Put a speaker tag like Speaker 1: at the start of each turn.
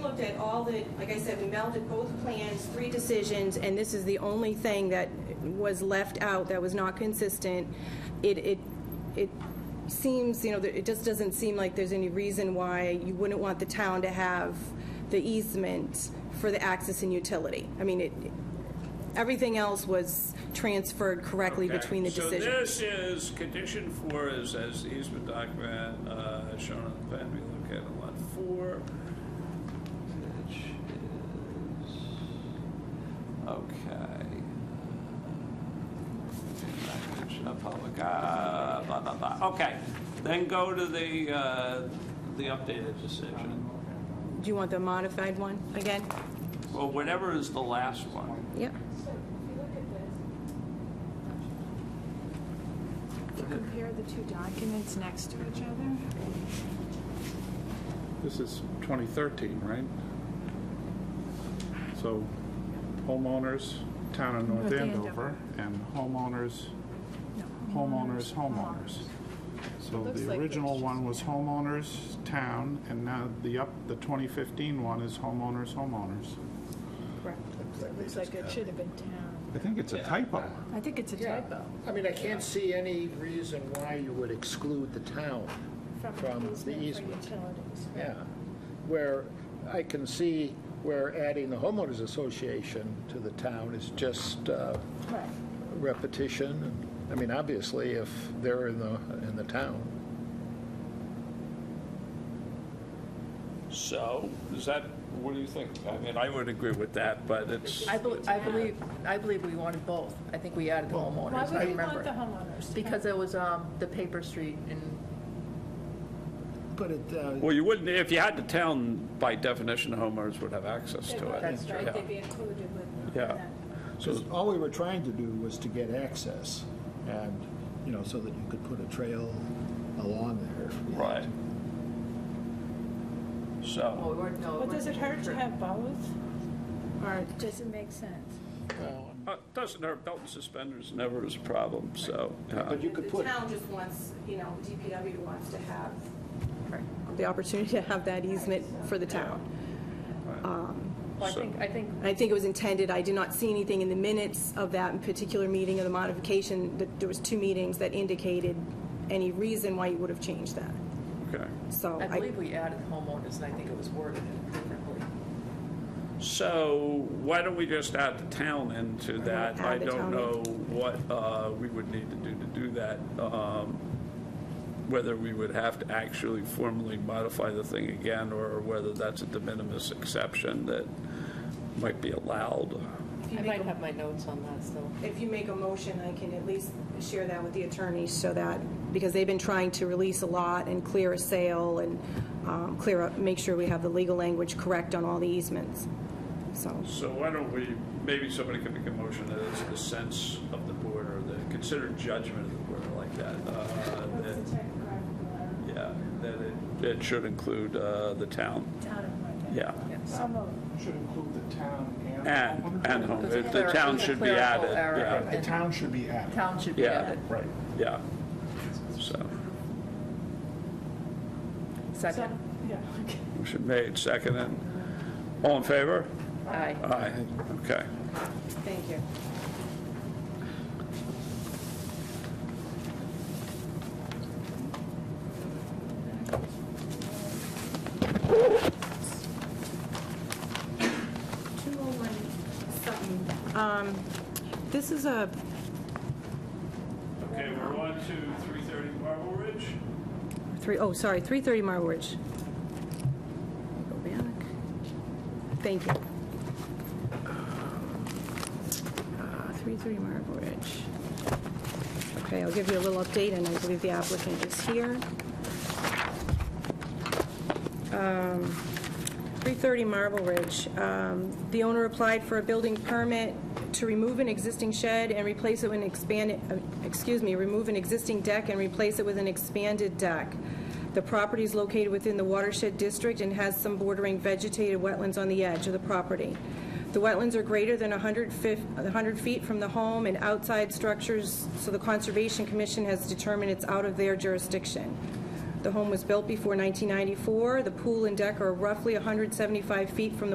Speaker 1: looked at all the, like I said, we melded both plans, three decisions, and this is the only thing that was left out that was not consistent. It, it, it seems, you know, that it just doesn't seem like there's any reason why you wouldn't want the town to have the easement for the access and utility. I mean, it, everything else was transferred correctly
Speaker 2: Okay,
Speaker 1: between the decisions.
Speaker 2: So this is, condition four is as the easement document uh, shown on the plan, we look at in lot four, which is, okay. Language of public, uh, blah, blah, blah. Okay, then go to the, uh, the updated decision.
Speaker 1: Do you want the modified one again?
Speaker 2: Well, whatever is the last one.
Speaker 1: Yep.
Speaker 3: If you compare the two documents next to each other,
Speaker 4: This is 2013, right? So homeowners, town of North
Speaker 3: North
Speaker 4: Andover, and homeowners,
Speaker 3: no.
Speaker 4: homeowners, homeowners. So
Speaker 5: looks
Speaker 4: the
Speaker 5: like
Speaker 4: original
Speaker 5: it's
Speaker 4: one was homeowners, town, and now the up, the 2015 one is homeowners, homeowners.
Speaker 3: Correct.
Speaker 5: Looks like it should have been town.
Speaker 4: I think it's a typo.
Speaker 3: I think it's a
Speaker 6: Yeah.
Speaker 3: typo.
Speaker 6: I mean, I can't see any reason why you would exclude the town from the easement.
Speaker 5: For utilities.
Speaker 6: Yeah, where I can see where adding the homeowners association to the town is just uh,
Speaker 5: Right.
Speaker 6: repetition. I mean, obviously, if they're in the, in the town.
Speaker 2: So, is that, what do you think? I mean, I would agree with that, but it's.
Speaker 7: I believe, I believe, I believe we wanted both. I think we added the
Speaker 5: Why
Speaker 7: homeowners, I
Speaker 5: would we want the
Speaker 7: remember.
Speaker 5: homeowners?
Speaker 7: Because it was, um, the paper street and,
Speaker 6: But it, uh,
Speaker 2: Well, you wouldn't, if you had the town, by definition, homeowners would have access to it.
Speaker 7: That's
Speaker 5: Right,
Speaker 2: Yeah.
Speaker 5: they'd be included with
Speaker 2: Yeah.
Speaker 5: that.
Speaker 6: so all we were trying to do was to get access and, you know, so that you could put a trail along there. if you had
Speaker 2: Right.
Speaker 6: to.
Speaker 7: well,
Speaker 2: So,
Speaker 7: we weren't, no. it
Speaker 5: Well, does it
Speaker 7: wasn't
Speaker 5: hurt to
Speaker 7: paper.
Speaker 5: have both? Or does it make sense?
Speaker 2: uh, doesn't hurt, belt and suspenders never is a problem, so. uh,
Speaker 6: But you could
Speaker 1: The
Speaker 6: put,
Speaker 1: town just wants, you know, DPW wants to have
Speaker 7: Right.
Speaker 1: the opportunity to have that easement for the town.
Speaker 7: Well, I
Speaker 2: So-
Speaker 7: think, I think,
Speaker 1: And I think it was intended, I did not see anything in the minutes of that particular meeting of the modification, that there was two meetings that indicated any reason why you would have changed that.
Speaker 2: Okay.
Speaker 1: So
Speaker 7: I
Speaker 1: I,
Speaker 7: believe we added homeowners and I think it was worded differently.
Speaker 2: So why don't we just add the town into that? I
Speaker 1: Add the
Speaker 2: don't
Speaker 1: town in.
Speaker 2: know what uh, we would need to do to do that. um, Whether we would have to actually formally modify the thing again, or whether that's a de minimis exception that might be allowed.
Speaker 7: I might have my notes on that still.
Speaker 1: if you make a motion, I can at least share that with the attorneys so that, because they've been trying to release a lot and clear a sale and um, clear up, make sure we have the legal language correct on all the easements. So,
Speaker 2: So why don't we, maybe somebody could make a motion that it's the sense of the board or the considered judgment of the board or like that. uh,
Speaker 5: What's the
Speaker 2: that-
Speaker 5: typographical
Speaker 2: Yeah,
Speaker 5: error?
Speaker 2: that it, it should include uh, the town,
Speaker 5: Town of North
Speaker 2: yeah.
Speaker 5: So moved.
Speaker 4: Should include the town
Speaker 2: And, and home,
Speaker 7: It's a
Speaker 2: the
Speaker 7: clerical-
Speaker 2: town
Speaker 7: it's a
Speaker 2: should be
Speaker 7: clerical
Speaker 2: added,
Speaker 7: error.
Speaker 2: yeah,
Speaker 4: The town should be added.
Speaker 7: Town should be
Speaker 2: Yeah.
Speaker 7: added.
Speaker 4: Right.
Speaker 2: yeah. So,
Speaker 5: So,
Speaker 7: Second.
Speaker 5: yeah, okay.
Speaker 2: motion made, seconded. All in favor?
Speaker 7: Aye.
Speaker 2: Aye, okay.
Speaker 1: thank you. Two oh one something. Um, This is a
Speaker 2: Okay, we're on to three thirty Marble Ridge.
Speaker 1: Three, oh, sorry, 330 Marble Ridge. Go back. Thank you. Uh, 330 Marble Ridge. Okay, I'll give you a little update, and I believe the applicant is here. Um, 330 Marble Ridge. Um, The owner applied for a building permit to remove an existing shed and replace it with an expanded, uh, excuse me, remove an existing deck and replace it with an expanded deck. The property is located within the watershed district and has some bordering vegetated wetlands on the edge of the property. The wetlands are greater than 100 fif- 100 feet from the home and outside structures, so the Conservation Commission has determined it's out of their jurisdiction. The home was built before 1994. The pool and deck are roughly 175 feet from the